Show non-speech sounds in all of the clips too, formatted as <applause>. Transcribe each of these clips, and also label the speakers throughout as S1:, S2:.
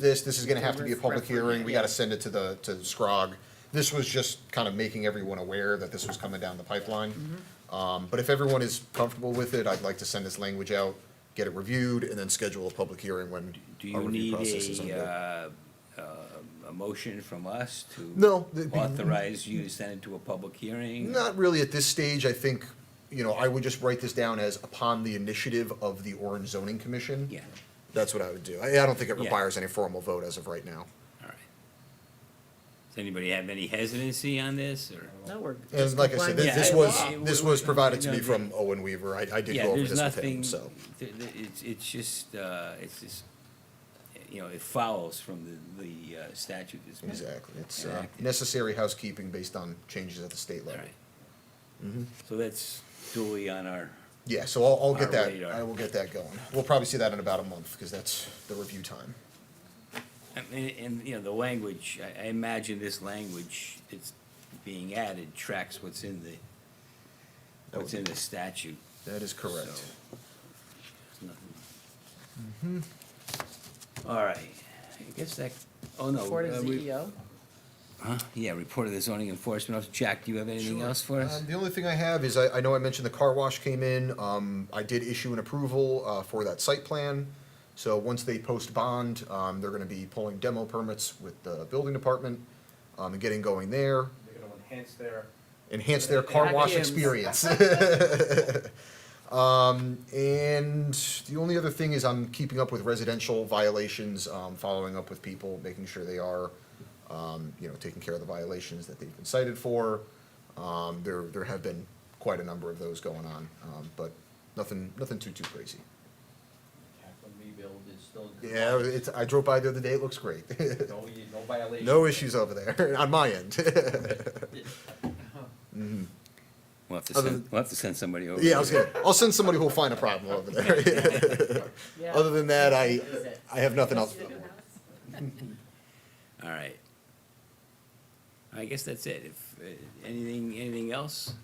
S1: this, this is gonna have to be a public
S2: Referendum,
S1: hearing, we gotta
S2: yeah.
S1: send it to the, to SCROG. This was just kind of making everyone aware that this was coming down the pipeline. Um, but if everyone is comfortable with it, I'd like to send this language out, get it reviewed, and then schedule a public hearing when
S3: Do
S1: our
S3: you
S1: review
S3: need
S1: process is
S3: a,
S1: under.
S3: uh, uh, a motion from us to?
S1: No, that'd be-
S3: Authorize you to send it to a public hearing?
S1: Not really at this stage, I think, you know, I would just write this down as upon the initiative of the Orange Zoning Commission.
S3: Yeah,
S1: That's what I would do. I, I don't think it
S3: Yeah.
S1: requires any formal vote as of right now.
S3: all right. Does anybody have any hesitancy on this, or?
S2: No, we're
S1: And
S2: just
S1: like I said,
S2: complying
S1: this,
S3: Yeah,
S1: this
S2: with
S1: was,
S2: law.
S3: it-
S1: this
S3: it-
S1: was
S3: it-
S1: provided to me
S3: no,
S1: from Owen Weaver. I, I did
S3: Yeah,
S1: go over
S3: there's
S1: this with him,
S3: nothing.
S1: so.
S3: th- th- It's, it's just, uh, it's just, you know, it follows from the, the uh, statute that's been.
S1: Exactly. It's uh,
S3: enacted.
S1: necessary housekeeping based on changes at the state
S3: All
S1: level.
S3: right.
S1: Mm-hmm.
S3: So that's duly on our,
S1: Yeah, so I'll, I'll get
S3: Our
S1: that,
S3: radar.
S1: I will get that going. We'll probably see that in about a month, because that's the review time.
S3: and- and, and, you know, the language, I, I imagine this language that's being added tracks what's in the,
S1: That
S3: what's
S1: would-
S3: in the statute.
S1: That is correct.
S3: So, it's nothing. Mm-hmm. All right, I guess that, oh no.
S2: Report
S3: uh,
S2: of E
S3: we-
S2: CEO.
S3: Huh? Yeah, report of the zoning enforcement officer. Jack, do you have anything else for us?
S1: Um, The only thing I have is, I, I know I mentioned the car wash came in, um, I did issue an approval, uh, for that site plan. So once they post bond, um, they're gonna be pulling demo permits with the building department, um, and getting going there,
S4: They're gonna enhance their.
S1: enhance their car wash
S2: Vacuums.
S1: experience. <laughs> Um, and the only other thing is I'm keeping up with residential violations, um, following up with people, making sure they are, um, you know, taking care of the violations that they've been cited for. Um, there, there have been quite a number of those going on, um, but nothing, nothing too, too crazy.
S4: Kaplan rebuild is still.
S1: Yeah, it's, I drove by the other day, it looks great. <laughs>
S4: <laughs> No, no violation.
S1: No issues over there, <laughs> on my end.
S4: <laughs> Uh-huh.
S1: Mm-hmm.
S3: We'll have to
S1: Other
S3: send,
S1: than-
S3: we'll have to send somebody over.
S1: Yeah, I was gonna, I'll send somebody who'll find a problem over there. <laughs>
S2: Yeah.
S1: Other than that, I,
S2: Is it?
S1: I have nothing else.
S3: All right. I guess that's it. If, uh, anything, anything else?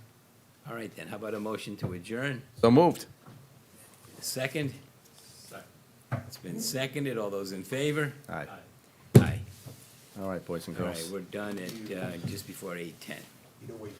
S3: All right then, how about a motion to adjourn?
S5: So moved.
S3: Second? It's been seconded. All those in favor?
S5: All right,
S3: Aye.
S5: all right, boys and
S3: All
S5: girls.
S3: right, we're done at, uh, just before eight-ten.